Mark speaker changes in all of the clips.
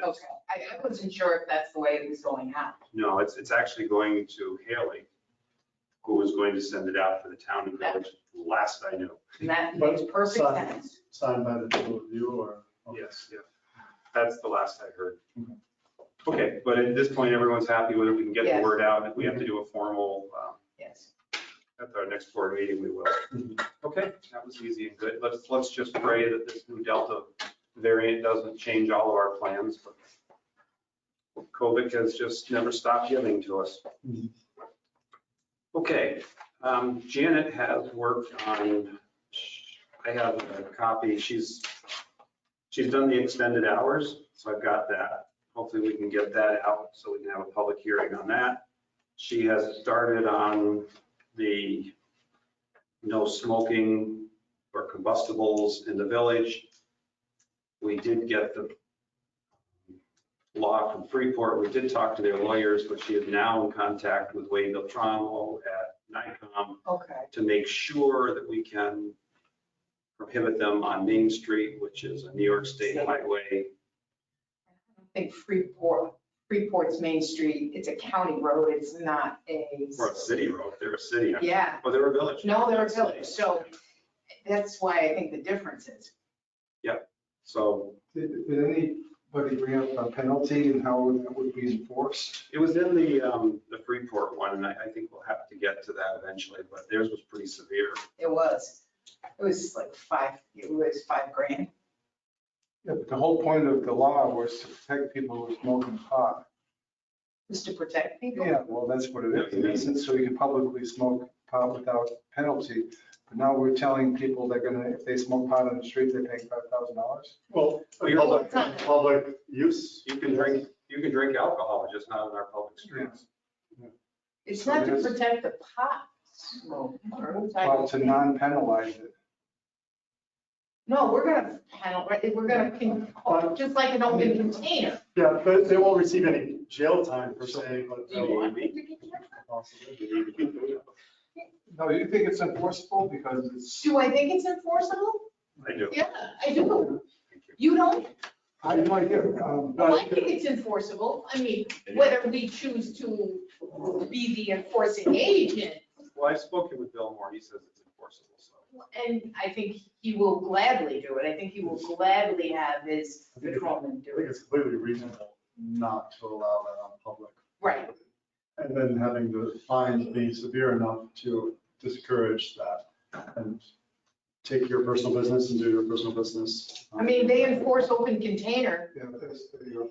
Speaker 1: Okay, I, I wasn't sure if that's the way it was going out.
Speaker 2: No, it's, it's actually going to Haley, who was going to send it out for the town and village, last I knew.
Speaker 1: And that
Speaker 3: But
Speaker 1: makes perfect
Speaker 3: sign-
Speaker 1: sense.
Speaker 3: Signed by the two of you or?
Speaker 2: Yes, Mm-hmm. yeah. That's the last I heard. Okay, but at this point, everyone's happy with it. We can get the
Speaker 1: Yes.
Speaker 2: word out. If we have to do a formal, um,
Speaker 1: Yes.
Speaker 2: at our next board meeting, we will.
Speaker 4: Mm-hmm.
Speaker 2: Okay, that was easy and good. Let's, let's just pray that this new Delta variant doesn't change all of our plans. but COVID has just never stopped giving to us.
Speaker 3: Mhm.
Speaker 2: Okay, um, Janet has worked on, I have a copy, she's, she's done the extended hours, so I've got that. Hopefully we can get that out so we can have a public hearing on that. She has started on the no smoking or combustibles in the village. We did get the law from Freeport. We did talk to their lawyers, but she is now in contact with Wade Beltramo at NICOM
Speaker 1: Okay.
Speaker 2: to make sure that we can prohibit them on Main Street, which is a New York State highway.
Speaker 1: I think Freeport, Freeport's Main Street, it's a county road, it's not a.
Speaker 2: Or a city road. They're a city.
Speaker 1: Yeah,
Speaker 2: Well, they're a village.
Speaker 1: no, they're
Speaker 2: They're
Speaker 1: a
Speaker 2: a city.
Speaker 1: village, so that's why I think the difference is.
Speaker 2: So
Speaker 3: Did, did anybody bring up a penalty and how that would be enforced?
Speaker 2: It was in the, um, the Freeport one, and I, I think we'll have to get to that eventually, but theirs was pretty severe.
Speaker 1: It was, it was like five, it was five grand.
Speaker 3: Yeah, but the whole point of the law was to protect people who are smoking pot.
Speaker 1: Just to protect people.
Speaker 3: Yeah, well, that's what it is, in essence, so you can publicly smoke pot without penalty. But now we're telling people they're gonna, if they smoke pot on the street, they pay five thousand dollars?
Speaker 4: Well,
Speaker 2: Well, you're-
Speaker 4: public, public use.
Speaker 2: You can drink, you can drink alcohol, just not in our public streets.
Speaker 1: It's not to protect the pot smokers. I
Speaker 3: Well,
Speaker 1: don't
Speaker 3: to
Speaker 1: think.
Speaker 3: non-penalize it.
Speaker 1: No, we're gonna panel, we're gonna, con- oh, just like an open container.
Speaker 4: Yeah, but they won't receive any jail time per se, but.
Speaker 1: Do you want them to get jailed?
Speaker 3: No, you think it's enforceable because it's,
Speaker 1: Do I think it's enforceable?
Speaker 2: I do.
Speaker 1: Yeah, I do. You don't?
Speaker 3: I have no idea. um,
Speaker 1: Well, I think it's enforceable. I mean, whether we choose to be the enforcing agent,
Speaker 2: Well, I've spoken with Bill Moore, he says it's enforceable, so.
Speaker 1: and I think he will gladly do it. I think he will gladly have his
Speaker 4: I think it's-
Speaker 1: patrolman
Speaker 4: I
Speaker 1: do
Speaker 4: think
Speaker 1: it.
Speaker 4: it's completely reasonable not to allow that on public.
Speaker 1: Right,
Speaker 4: And then having the fines be severe enough to discourage that and take your personal business and do your personal business.
Speaker 1: I mean, they enforce open container.
Speaker 3: Yeah, that's, there you go.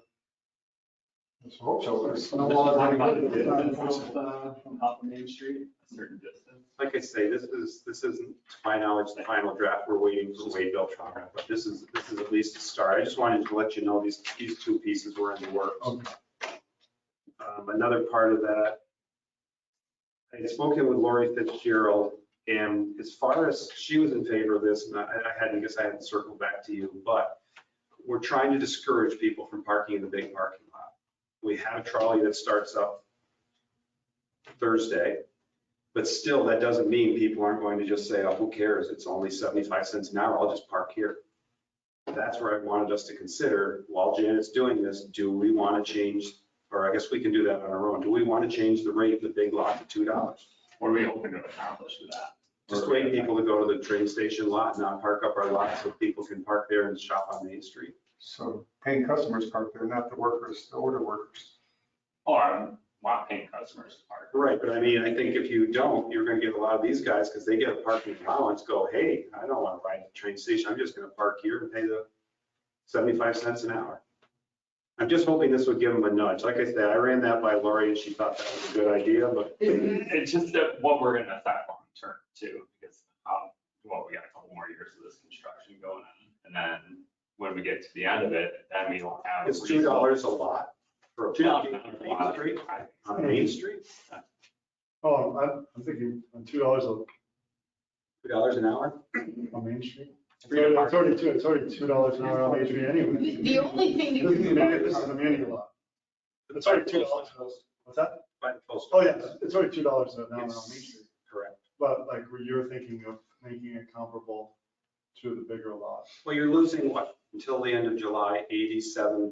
Speaker 3: Let's hope so.
Speaker 4: There's no law that anybody did.
Speaker 5: From Hop Main Street, a certain distance.
Speaker 2: Like I say, this is, this isn't, to my knowledge, the final draft, we're waiting for Wade Beltran, but this is, this is at least a start. I just wanted to let you know these, these two pieces were in the works.
Speaker 4: Okay.
Speaker 2: Um, Another part of that, I had spoken with Lori Fitzgerald, and as far as, she was in favor of this, and I I hadn't, I guess I hadn't circled back to you, but we're trying to discourage people from parking in the big parking lot. We have a trolley that starts up Thursday, but still, that doesn't mean people aren't going to just say, oh, who cares? It's only 75 cents an hour, I'll just park here. That's where I wanted us to consider, while Janet's doing this, do we want to change or I guess we can do that on our own. Do we want to change the rate of the big lot to two dollars?
Speaker 5: What are we hoping to accomplish with that?
Speaker 2: Just wait people to go to the train station lot and not park up our lot so people can park there and shop on Main Street.
Speaker 3: So paying customers park there, not the workers, the order workers.
Speaker 5: Or I'm not paying customers to park.
Speaker 2: Right, but I mean, I think if you don't, you're gonna get a lot of these guys, because they get a parking allowance, go, hey, I don't want to ride the train station, I'm just gonna park here and pay the seventy-five cents an hour. I'm just hoping this would give them a nudge. Like I said, I ran that by Lori and she thought that was a good idea, but
Speaker 5: It's just that what we're gonna affect long term too, because, um, well, we got a couple more years of this construction going on. And then when we get to the end of it, then we will have. a
Speaker 2: it's two dollars a lot for a
Speaker 5: reasonable- Two dollars.
Speaker 2: parking
Speaker 5: an
Speaker 2: on Main
Speaker 5: hour.
Speaker 2: Street, on Main Street,
Speaker 4: Oh, I'm, I'm thinking on two dollars on
Speaker 2: two dollars an hour.
Speaker 4: Main Street. It's
Speaker 5: Free to park.
Speaker 4: already two, it's already two dollars an hour on Main Street anyway.
Speaker 1: The the only thing that
Speaker 4: This is
Speaker 1: you
Speaker 4: a muni- this is a muni lot. It's already two dollars. What's that?
Speaker 2: By the post.
Speaker 4: Oh, yeah, it's already two dollars an hour on Main
Speaker 2: It's-
Speaker 4: Street.
Speaker 2: Correct.
Speaker 4: But like where you're thinking of making it comparable to the bigger lot.
Speaker 2: Well, you're losing what, until the end of July, eighty-seven